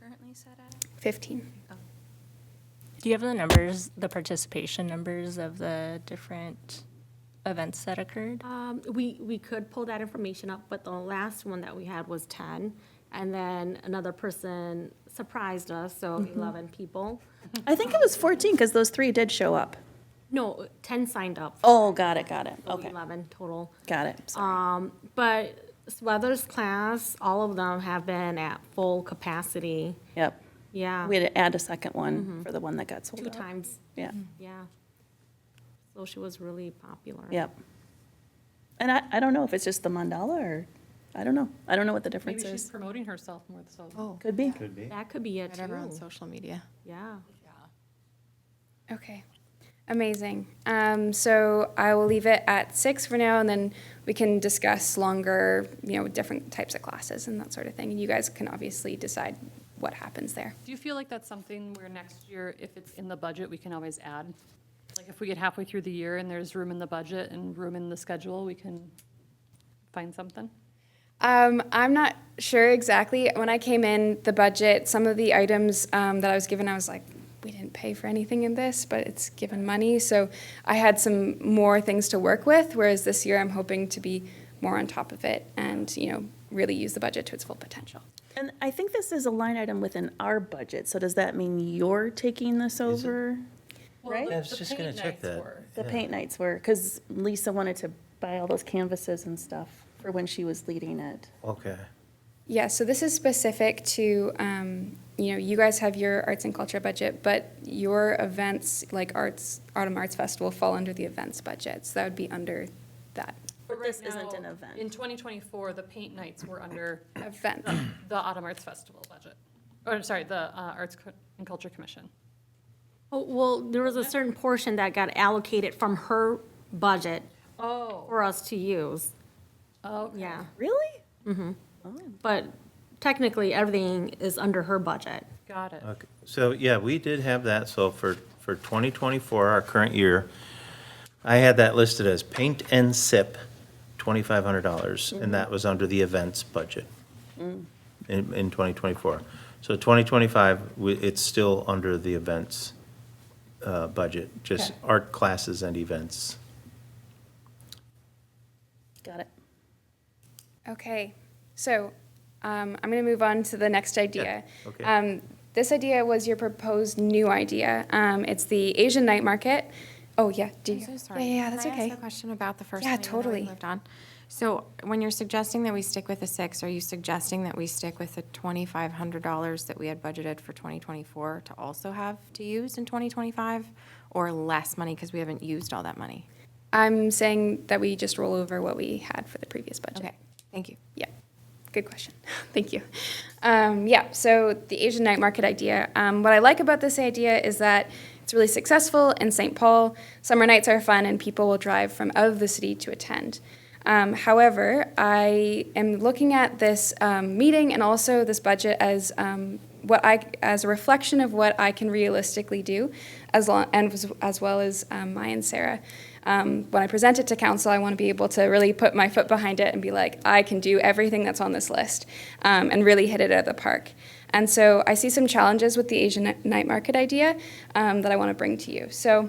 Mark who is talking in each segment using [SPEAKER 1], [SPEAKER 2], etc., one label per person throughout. [SPEAKER 1] currently set at?
[SPEAKER 2] 15.
[SPEAKER 3] Do you have the numbers, the participation numbers of the different events that occurred?
[SPEAKER 4] Um, We, we could pull that information up, but the last one that we had was 10. And then another person surprised us, so
[SPEAKER 2] Mm-hmm.
[SPEAKER 4] 11 people.
[SPEAKER 2] I think it was 14 because those three did show up.
[SPEAKER 4] No, 10 signed up.
[SPEAKER 2] Oh, got it, got it.
[SPEAKER 4] so
[SPEAKER 2] Okay, Um,
[SPEAKER 4] 11 total.
[SPEAKER 2] got it. Sorry.
[SPEAKER 4] But Sweathers class, all of them have been at full capacity.
[SPEAKER 2] Yep.
[SPEAKER 4] Yeah,
[SPEAKER 2] We had to add a second one for the one that got sold
[SPEAKER 4] two
[SPEAKER 2] out.
[SPEAKER 4] times,
[SPEAKER 2] Yeah,
[SPEAKER 4] yeah. So she was really popular.
[SPEAKER 2] yep. And I, I don't know if it's just the mandala or, I don't know. I don't know what the difference
[SPEAKER 5] Maybe she's
[SPEAKER 2] is.
[SPEAKER 5] promoting herself more, so.
[SPEAKER 2] Could be.
[SPEAKER 6] Could be.
[SPEAKER 4] That could be it
[SPEAKER 7] Whatever on
[SPEAKER 4] too.
[SPEAKER 7] social media.
[SPEAKER 4] Yeah.
[SPEAKER 8] Okay, amazing. Um, so I will leave it at six for now, and then we can discuss longer, you know, different types of classes and that sort of thing. And you guys can obviously decide what happens there.
[SPEAKER 5] Do you feel like that's something where next year, if it's in the budget, we can always add? Like if we get halfway through the year and there's room in the budget and room in the schedule, we can find something?
[SPEAKER 8] Um, I'm not sure exactly. When I came in, the budget, some of the items um, that I was given, I was like, we didn't pay for anything in this, but it's given money. So I had some more things to work with, whereas this year I'm hoping to be more on top of it and, you know, really use the budget to its full potential.
[SPEAKER 2] And I think this is a line item within our budget, so does that mean you're taking this over? Right?
[SPEAKER 6] I was just gonna check that.
[SPEAKER 2] The paint nights were, because Lisa wanted to buy all those canvases and stuff for when she was leading it.
[SPEAKER 6] Okay.
[SPEAKER 8] Yeah, so this is specific to, um, you know, you guys have your arts and culture budget, but your events, like Arts, Autumn Arts Festival, fall under the events budget. So that would be under that
[SPEAKER 2] But
[SPEAKER 5] right
[SPEAKER 2] this isn't an
[SPEAKER 5] now,
[SPEAKER 2] event.
[SPEAKER 5] In 2024, the paint nights were under
[SPEAKER 8] event.
[SPEAKER 5] the the Autumn Arts Festival budget, or I'm sorry, the uh, Arts Co- and Culture Commission.
[SPEAKER 4] Oh, well, there was a certain portion that got allocated from her budget
[SPEAKER 5] Oh.
[SPEAKER 4] for us to use,
[SPEAKER 5] Okay.
[SPEAKER 4] yeah.
[SPEAKER 2] Really?
[SPEAKER 4] But technically, everything is under her budget.
[SPEAKER 5] Got it.
[SPEAKER 6] Okay. So, yeah, we did have that, so for, for 2024, our current year, I had that listed as paint and sip, $2,500, and that was under the events budget in, in 2024. So 2025, we- it's still under the events uh, budget, just art classes and events.
[SPEAKER 2] Got it.
[SPEAKER 8] Okay, so um, I'm going to move on to the next idea.
[SPEAKER 6] Yeah, okay.
[SPEAKER 8] Um, this idea was your proposed new idea. Um, it's the Asian night market. Oh yeah, do
[SPEAKER 7] I'm
[SPEAKER 8] you-
[SPEAKER 7] so sorry.
[SPEAKER 8] Yeah, yeah, that's
[SPEAKER 7] Can I ask
[SPEAKER 8] okay.
[SPEAKER 7] a question about the first
[SPEAKER 8] Yeah,
[SPEAKER 7] one? and then we
[SPEAKER 8] totally.
[SPEAKER 7] Moved on. So when you're suggesting that we stick with the six, are you suggesting that we stick with the twenty-five hundred dollars that we had budgeted for twenty twenty-four to also have to use in twenty twenty-five? Or less money because we haven't used all that money?
[SPEAKER 8] I'm saying that we just roll over what we had for the previous budget.
[SPEAKER 7] Okay, thank you.
[SPEAKER 8] Yeah, good question. Thank you. Um, yeah, so the Asian night market idea. Um, what I like about this idea is that it's really successful in St. Paul. Summer nights are fun, and people will drive from out of the city to attend. Um, however, I am looking at this um, meeting and also this budget as um, what I as a reflection of what I can realistically do, as long and as, as well as um, Maya and Sarah. Um, when I present it to council, I want to be able to really put my foot behind it and be like, I can do everything that's on this list, um, and really hit it out of the park. And so I see some challenges with the Asian night market idea um, that I want to bring to you. So.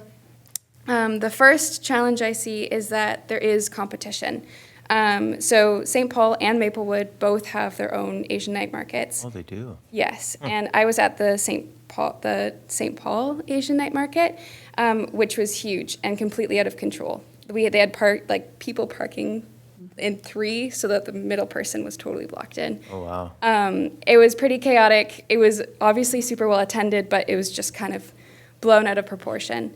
[SPEAKER 8] Um, the first challenge I see is that there is competition. Um, so St. Paul and Maplewood both have their own Asian night markets.
[SPEAKER 6] Oh, they do.
[SPEAKER 8] Yes, and I was at the St. Paul, the St. Paul Asian Night Market, um, which was huge and completely out of control. We they had park like people parking in three, so that the middle person was totally blocked in.
[SPEAKER 6] Oh, wow.
[SPEAKER 8] Um, it was pretty chaotic. It was obviously super well attended, but it was just kind of blown out of proportion.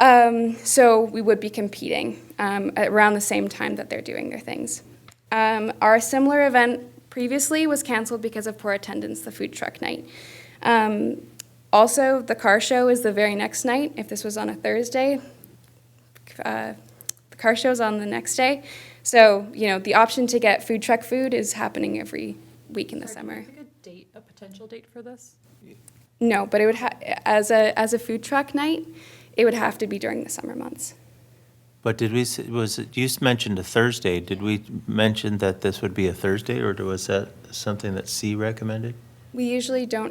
[SPEAKER 8] Um, so we would be competing um, around the same time that they're doing their things. Um, our similar event previously was canceled because of poor attendance, the food truck night. Um, also, the car show is the very next night. If this was on a Thursday, uh, the car show's on the next day. So, you know, the option to get food truck food is happening every week in the
[SPEAKER 5] Sorry,
[SPEAKER 8] summer.
[SPEAKER 5] Can we pick a date, a potential date for this?
[SPEAKER 8] No, but it would ha- as a as a food truck night, it would have to be during the summer months.
[SPEAKER 6] But did we, s- was, it- you s- mentioned a Thursday, did we mention that this would be a Thursday, or was that something that C recommended?
[SPEAKER 8] We usually don't